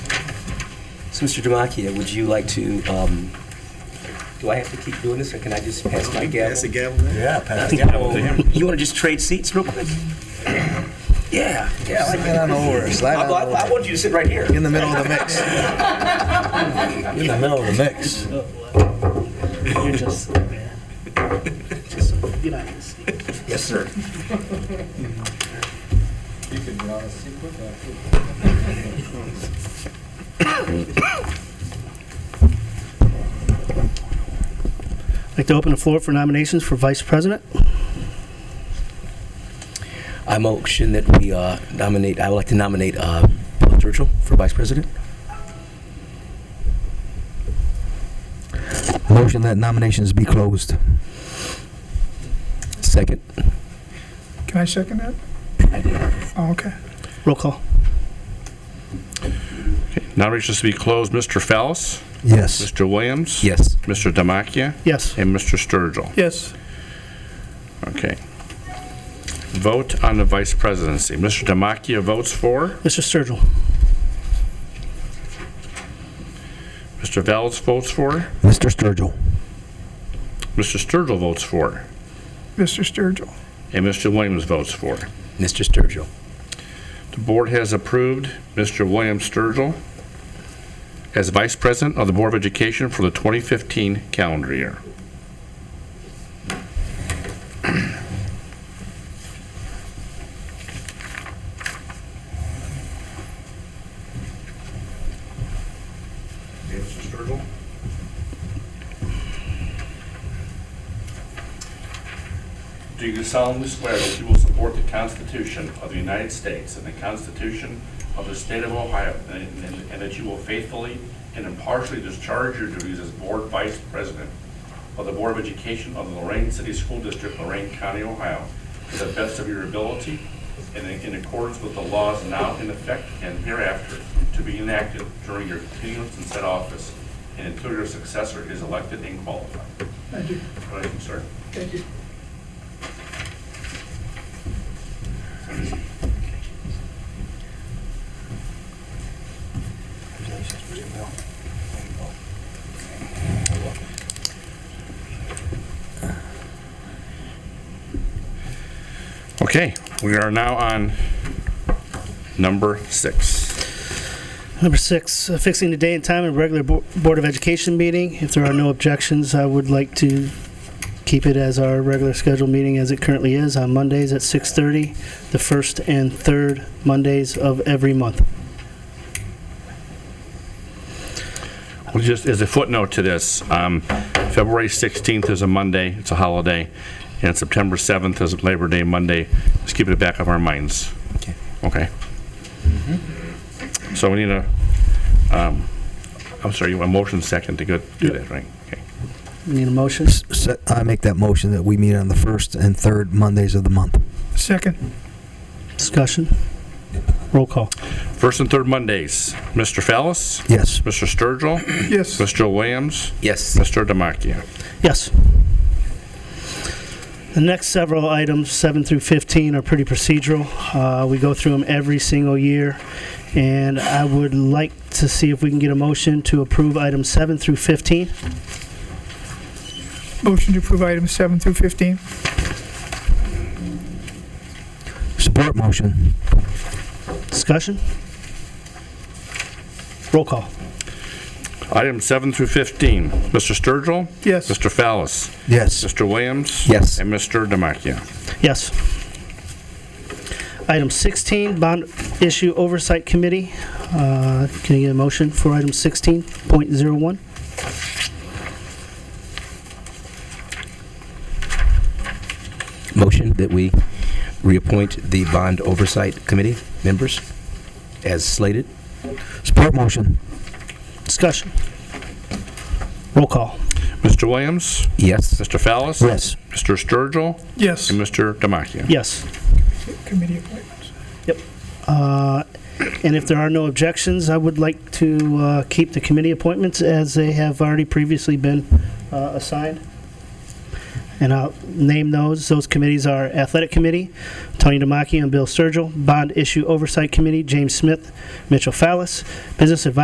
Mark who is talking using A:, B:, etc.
A: So, Mr. Demakia, would you like to, um, do I have to keep doing this, or can I just pass my gavel?
B: That's the gavel, man.
C: Yeah, pass it
A: Oh, You want to just trade seats real quick? Yeah, yeah. I like that.
B: Slide on over, slide
A: I,
B: on
A: I- I
B: over.
A: want you to sit right here.
B: In the middle of the mix.
C: in the middle of the mix.
D: You're just, man. Just get out of this.
A: Yes, sir.
E: You could be on a sequence.
D: I'd like to open the floor for nominations for vice president.
A: I motion that we uh, nominate, I would like to nominate uh, Bill Churchill for vice president.
F: Motion that nominations be closed.
A: Second.
G: Can I second that? Oh, okay.
D: Roll call.
H: Nominations to be closed, Mr. Fallis,
F: Yes.
H: Mr. Williams.
A: Yes.
H: Mr. Demakia
D: Yes.
H: and Mr. Sturgill.
G: Yes.
H: Okay. Vote on the vice presidency. Mr. Demakia votes for,
D: Mr. Sturgill.
H: Mr. Fallis votes for,
F: Mr. Sturgill.
H: Mr. Sturgill votes for,
G: Mr. Sturgill.
H: and Mr. Williams votes for.
A: Mr. Sturgill.
H: The board has approved Mr. William Sturgill as Vice President of the Board of Education for the 2015 calendar year. Mr. Sturgill? Do you solemnly swear that you will support the Constitution of the United States and the Constitution of the State of Ohio, and and- and that you will faithfully and impartially discharge your duties as Board Vice President of the Board of Education of the Lorraine City School District, Lorraine County, Ohio, to the best of your ability and in in accordance with the laws now in effect and hereafter to be enacted during your continuance in said office and until your successor is elected and qualified?
G: Thank you.
H: Thank you, sir.
G: Thank you.
H: Okay, we are now on number six.
D: Number six, uh, fixing the day and time of regular Bo- Board of Education meeting. If there are no objections, I would like to keep it as our regular scheduled meeting as it currently is on Mondays at 6:30, the first and third Mondays of every month.
H: Well, just as a footnote to this, um, February 16th is a Monday, it's a holiday, and September 7th is Labor Day Monday. Just keep it back of our minds.
A: Okay.
H: Okay? So we need a, um, I'm sorry, you want a motion second to go do that, right? Okay.
D: Need a motion?
F: S- se- I make that motion that we meet on the first and third Mondays of the month.
G: Second.
D: Discussion? Roll call.
H: First and third Mondays, Mr. Fallis,
F: Yes.
H: Mr. Sturgill,
G: Yes.
H: Mr. Williams,
A: Yes.
H: Mr. Demakia.
D: Yes. The next several items, 7 through 15, are pretty procedural. Uh, We go through them every single year, and I would like to see if we can get a motion to approve items 7 through 15.
G: Motion to approve items seven through 15.
F: Support motion.
D: Discussion? Roll call.
H: Item 7 through 15, Mr. Sturgill,
G: Yes.
H: Mr. Fallis,
F: Yes.
H: Mr. Williams.
A: Yes.
H: And Mr. Demakia.
D: Yes. Item 16, Bond Issue Oversight Committee. Uh, Can you get a motion for item 16.01?
A: Motion that we reappoint the Bond Oversight Committee members as slated.
F: Support motion.
D: Discussion? Roll call.
H: Mr. Williams,
A: Yes.
H: Mr. Fallis.
F: Yes.
H: Mr. Sturgill
G: Yes.
H: and Mr. Demakia.
D: Yes.
G: Committee appointments.
D: Uh, And if there are no objections, I would like to uh, keep the committee appointments as they have already previously been uh, assigned. And I'll name those. Those committees are Athletic Committee, Tony Damaki and Bill Sturgill, Bond Issue Oversight Committee, James Smith, Mitchell Fallis, Business Advisory